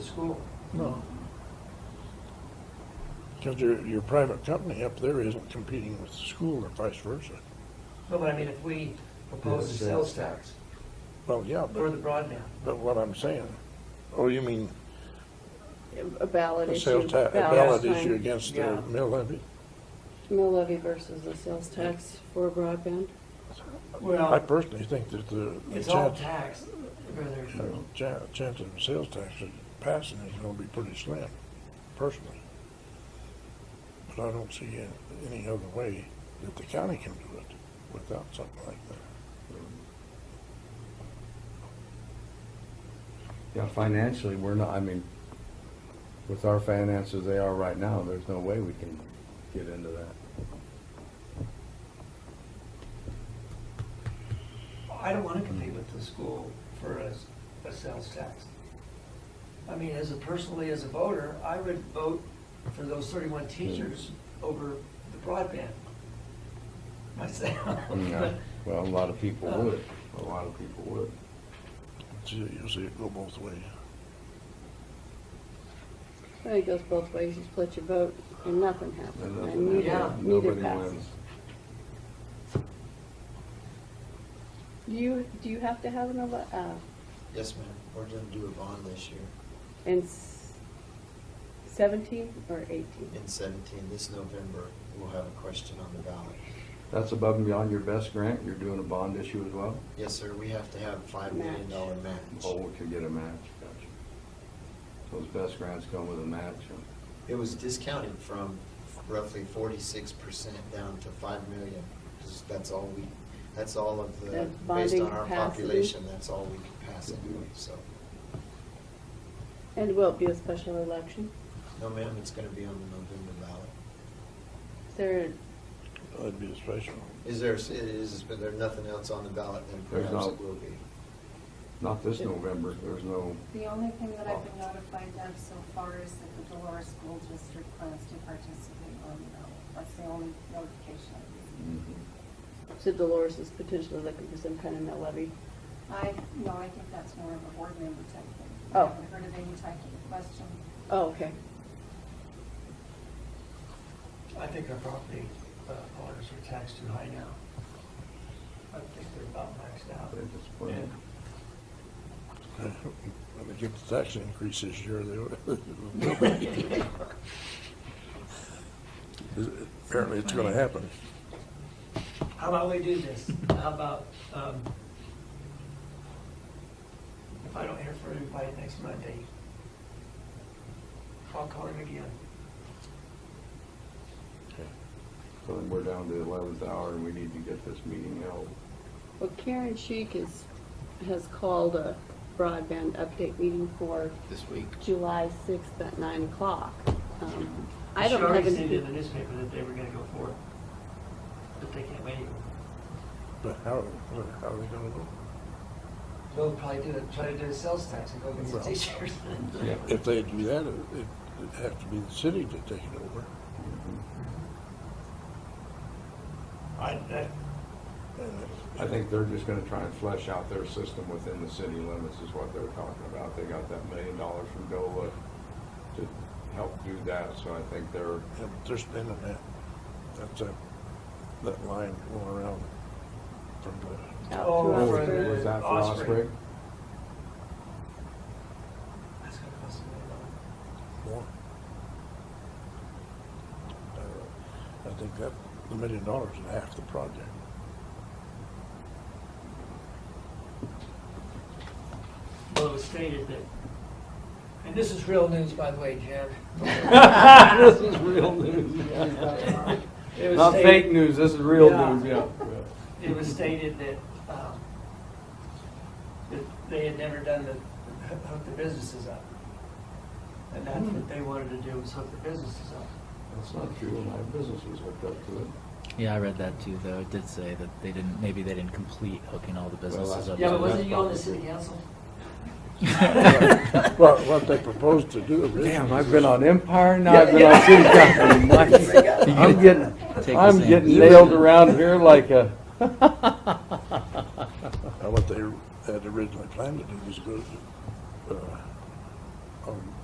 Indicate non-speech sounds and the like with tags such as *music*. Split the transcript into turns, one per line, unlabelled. school.
No. Because your, your private company up there isn't competing with the school or vice versa.
No, but I mean, if we propose the sales tax
Well, yeah,
or
but,
the broadband,
but what I'm saying, oh, you mean
A ballot
the
issue.
sales tax, a
ballot
ballot issue
time.
against
Yeah.
the mill levy?
Mill levy versus the sales tax for broadband.
I
well,
personally think that the, the
it's all
chance,
tax, whether,
you know, cha- chance of the sales tax passing is gonna be pretty slim, personally. But I don't see a- any other way that the county can do it without something like that.
Yeah, financially, we're not, I mean, with our finances they are right now, there's no way we can get into that.
I don't wanna compete with the school for a, s- a sales tax. I mean, as a, personally, as a voter, I would vote for those thirty-one teachers over the broadband myself. *laughs*
Mm, Yeah. Well, a lot of people would, a lot of people would.
So You'll see it go both ways.
I think it goes both ways. You split your vote and nothing
And
happens.
that's-
And neither,
Yeah.
neither
Nobody
passes.
wins.
Do you, do you have to have an, ele- uh,
Yes, ma'am. We're gonna do a bond this year
in s- seventeen or eighteen?
in seventeen. This November, we'll have a question on the ballot.
That's above and beyond your best grant, you're doing a bond issue as well?
Yes, sir. We have to have a five million dollar
Oh,
match.
we could get a match, gotcha. Those best grants come with a match, and
It was discounted from roughly forty-six percent down to five million. 'cause That's all we, that's all of the,
That's
based
bonding
on our
capacity.
population, that's all we can pass anyway, so.
And will it be a special election?
No, ma'am, it's gonna be on the November ballot.
Is there,
That'd be a *laughs* special.
Is there, is, but there's nothing else on the ballot, then
There's
perhaps
not.
it will be.
not this November, there's no,
The only thing that I've been notified of so far is that the Dolores School District plans to participate on the ballot. That's the only notification.
mm-hmm.
so Dolores is potentially looking for some kind of mill levy?
I, no, I think that's more of a board member type thing.
Oh.
I haven't heard of any type of question.
Oh, okay.
I think our property uh, owners are taxed too high now. I think they're about maxed out.
they just put it.
When they get the tax increase this year, they will. *laughs*
*laughs*
Apparently, it's gonna happen.
How about we do this? How about, um, if I don't hear from everybody next Monday, I'll call him again.
So then we're down to the eleventh hour, and we need to get this meeting held.
Well, Karen Sheik is, has called a broadband update meeting for
This week.
July 6th at 9 o'clock. Um, I
She
don't
already
have
stated in the
any,
newspaper that they were gonna go for it, but they can't wait.
But how, how are they gonna go?
They'll probably do it, try to do a sales tax and go get some
Well.
teachers.
If they do that, it- it'd have to be the city to take it over.
I, that,
And
I think they're just gonna try and flesh out their system within the city limits is what they're talking about. They got that million dollars from DOLA to help do that, so I think they're,
if They're spending that, that's a, that line going around from the,
out
Oh,
to
right.
was
Oxford.
was that for
Osprey.
Osprey?
that's gonna cost a million dollars.
more. Uh, I think that, the million dollars is half the project.
Well, it was stated that, and this is real news, by the way, Jim.
*laughs*
*laughs*
This is real news.
It was
Not
stated-
fake news, this is real
Yeah.
news, yeah.
It was stated that, um, that they had never done the, hook the businesses up. And that's what they wanted to do, was hook the businesses up.
That's not true, and my business was hooked up to it.
Yeah, I read that too, though. It did say that they didn't, maybe they didn't complete hooking all the businesses
that's-
up.
Yeah, but
to
wasn't you on the
probably-
city council?
Well, what they proposed to do originally.
Damn, I've been on Empire, now I've been on City Council.
*laughs*
My- I'm getting,
Take
I'm
the same
getting
position.
nailed around here like a.
Now, what they had originally planned to do was go, uh, on